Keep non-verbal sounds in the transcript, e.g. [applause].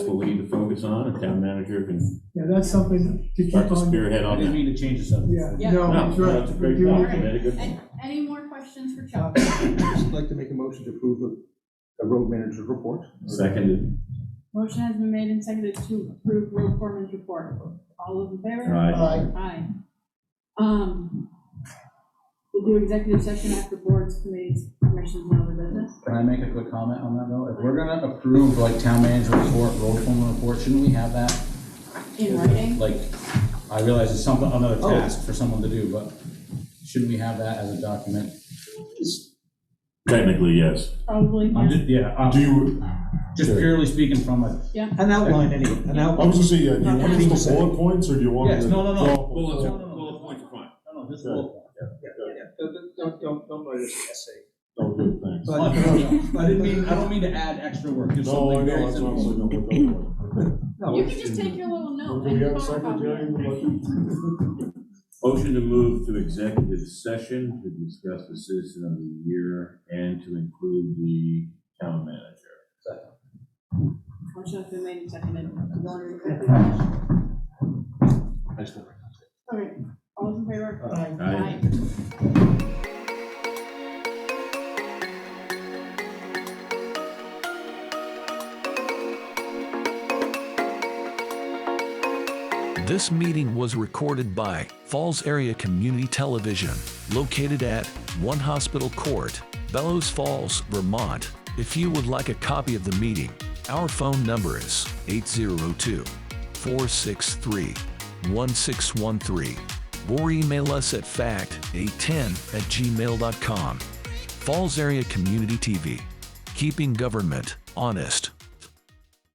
what we need to focus on, and town manager can Yeah, that's something to keep start to on, spearhead I on didn't that. mean to change the subject. yeah, Yeah. no, No, that's right. that's a great Give it- point, Alright. you made a good point. And any more questions for Chuck? Just like to make a motion to approve the, the road manager's report. Seconded, Motion has been made and seconded to approve Will Foreman's report. All those in favor? aye. Aye. Um, we'll do executive session after boards, committees, commissions, and other business. Can I make a quick comment on that though? If we're gonna approve like town manager report, road foreman report, shouldn't we have that? In writing, Like, I realize it's something, another task for someone to do, but shouldn't we have that as a document? Technically, yes. probably, I'm yeah. just, yeah, Do I'm you, Uh, just purely speaking from a, An outline, any, an I outline. was gonna say, uh, do you want just the bullet points, or do you want? Yes, the- no, no, no. Well, Bullets. well, points, fine. no, no, this is a little- Don't, don't, don't, don't write this essay. Oh, good, thanks. But, uh, I but, but, didn't mean, I don't mean to add extra work, just No, I something know, very that's what I was simple. looking for, don't worry. no, You can just take your little [laughs] note Do and we have a photocopy secretary? it. in the budget? Motion to move to executive session to discuss the citizen of the year and to include the town manager. Motion has been made and seconded. to go into executive session. Okay, all those in favor? Aye. Aye. This meeting was recorded by Falls Area Community Television, located at One Hospital Court, Bellows Falls, Vermont. If you would like a copy of the meeting, our phone number is 802 463 1613 or email us at fact810 at gmail.com. Falls Area Community TV, keeping government honest.